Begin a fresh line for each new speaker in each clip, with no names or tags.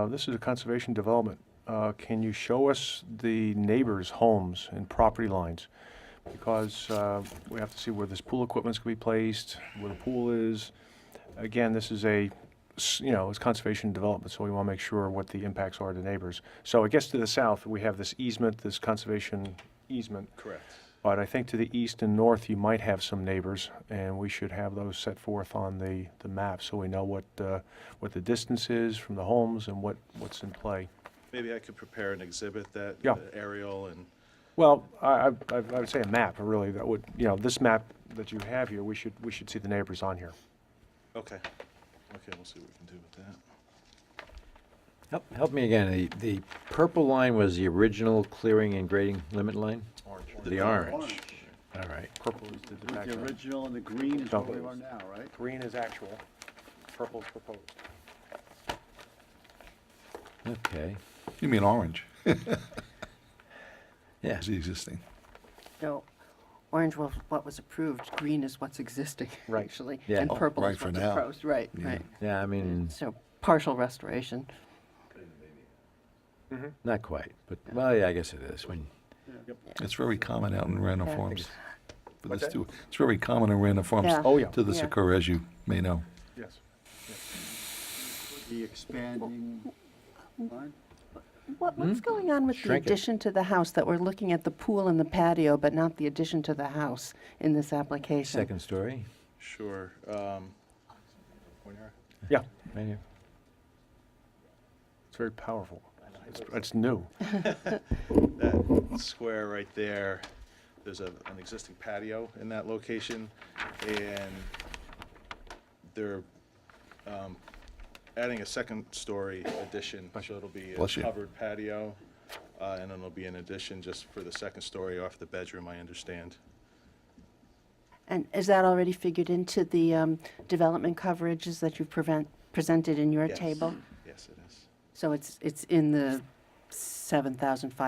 Uh, This is a conservation development. Uh, Can you show us the neighbors' homes and property lines? Because uh, we have to see where this pool equipment's gonna be placed, where the pool is. Again, this is a, s- you know, it's conservation development, so we want to make sure what the impacts are to neighbors. So it gets to the south, we have this easement, this conservation easement.
Correct.
But I think to the east and north, you might have some neighbors, and we should have those set forth on the, the map, so we know what, uh, what the distance is from the homes and what, what's in play.
Maybe I could prepare an exhibit that
Yeah.
the aerial and,
Well, I, I, I would say a map, really, that would, you know, this map that you have here, we should, we should see the neighbors on here.
okay. Okay, we'll see what we can do with that.
Help, help me again, the, the purple line was the original clearing and grading limit line?
Orange.
The orange, all right.
Purple is the- the
With the
background.
original and the green is what we
Double.
are now, right?
Green is actual, purple is proposed.
Okay,
You mean orange,
yeah,
is the existing.
No, orange was what was approved, green is what's existing,
Right.
actually.
Yeah.
And
Oh,
purple
right,
is
for
what's
now.
proposed, right,
Yeah.
right.
yeah, I mean,
So partial restoration.
not quite, but, well, yeah, I guess it is, when,
It's very common out in Random
Yeah.
Farms. But
What's
it's
that?
too, it's very common in Random Farms
Yeah.
Oh, yeah,
to this
Yeah.
occur, as you may know.
yes.
The expanding line?
What,
Hmm?
what's going on with the
Shrink it.
addition to the house that we're looking at the pool and the patio, but not the addition to the house in this application?
second story,
Sure. um, Moira?
Yeah,
right here.
it's very powerful. It's, it's new.
That square right there, there's a, an existing patio in that location, and they're um, adding a second-story addition, so it'll be a
Bless you.
covered patio, uh, and then it'll be an addition just for the second story off the bedroom, I understand.
And is that already figured into the um, development coverages that you've prevent, presented in your
Yes.
table?
Yes, it is.
So it's, it's in the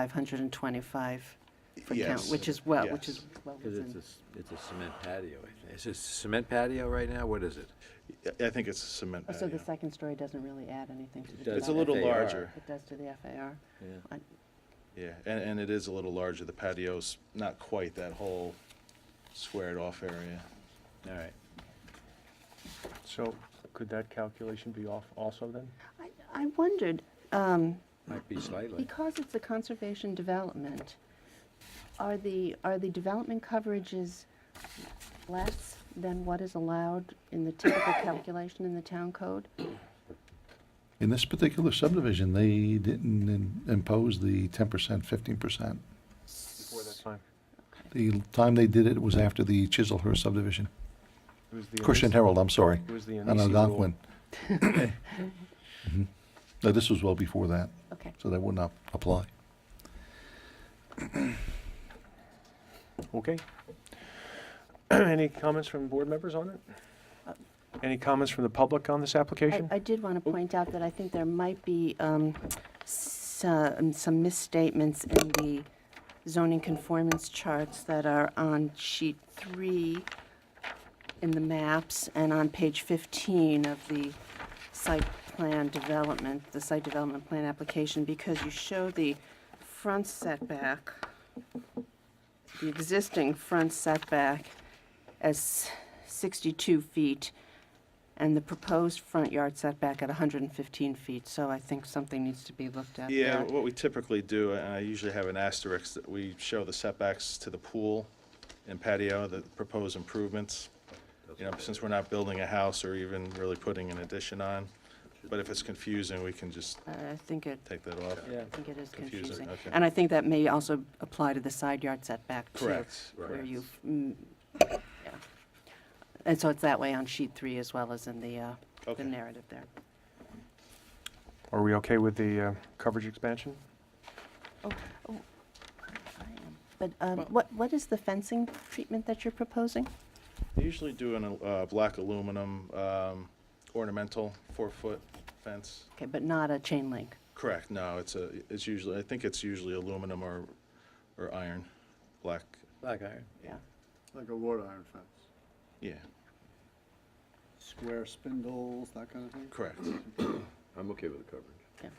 7,525 for count,
Yes,
which is well, which
yes.
is well
Cause it's a,
within.
s- it's a cement patio, I think. Is it cement patio right now, what is it?
I- I think it's a cement
Oh, So the
patio.
second story doesn't really add anything to the
does
It's a
development.
little
FAR.
larger,
It does to the FAR.
Yeah.
I-
yeah, and, and it is a little larger, the patio's not quite that whole squared-off area.
All right,
So could that calculation be off also then?
I, I wondered, um,
might be slightly,
because it's a conservation development, are the, are the development coverages less than what is allowed in the typical calculation in the town code?
In this particular subdivision, they didn't in- impose the ten percent, fifteen percent.
Before that time.
The time they did it was after the Chiselhurst subdivision.
It was the
Christian
Elis-
Herald, I'm sorry,
It was the
on
Annecy rule.
Algonquin. Mhm. No, this was well before that,
Okay.
so that would not apply.
Okay. Any comments from board members on it? Any comments from the public on this
I,
application?
I did want to point out that I think there might be um, some, some misstatements in the zoning conformance charts that are on sheet three in the maps and on page 15 of the site plan development, the site development plan application, because you show the front setback, the existing front setback as 62 feet, and the proposed front yard setback at 115 feet, so I think something needs to be looked at
Yeah,
there.
what we typically do, and I usually have an asterisk, that we show the setbacks to the pool and patio, the proposed improvements. You know, since we're not building a house or even really putting an addition on, but if it's confusing, we can just
Uh, I think it,
take that off.
I think it is
Confusing,
confusing.
okay.
And I think that may also apply to the side yard setback too.
Correct,
Where
correct.
you, mm, yeah. And so it's that way on sheet three as well as in the, uh, the
Okay.
narrative there.
Are we okay with the uh, coverage expansion?
But um, what, what is the fencing treatment that you're proposing?
They usually do an, uh, black aluminum, um, ornamental four-foot fence.
Okay, but not a chain link.
Correct, no, it's a, it's usually, I think it's usually aluminum or, or iron, black,
black iron.
Yeah.
Like a wrought iron fence.
yeah,
Square spindles, that kind of thing?
correct.
I'm okay with the coverage.
Yeah.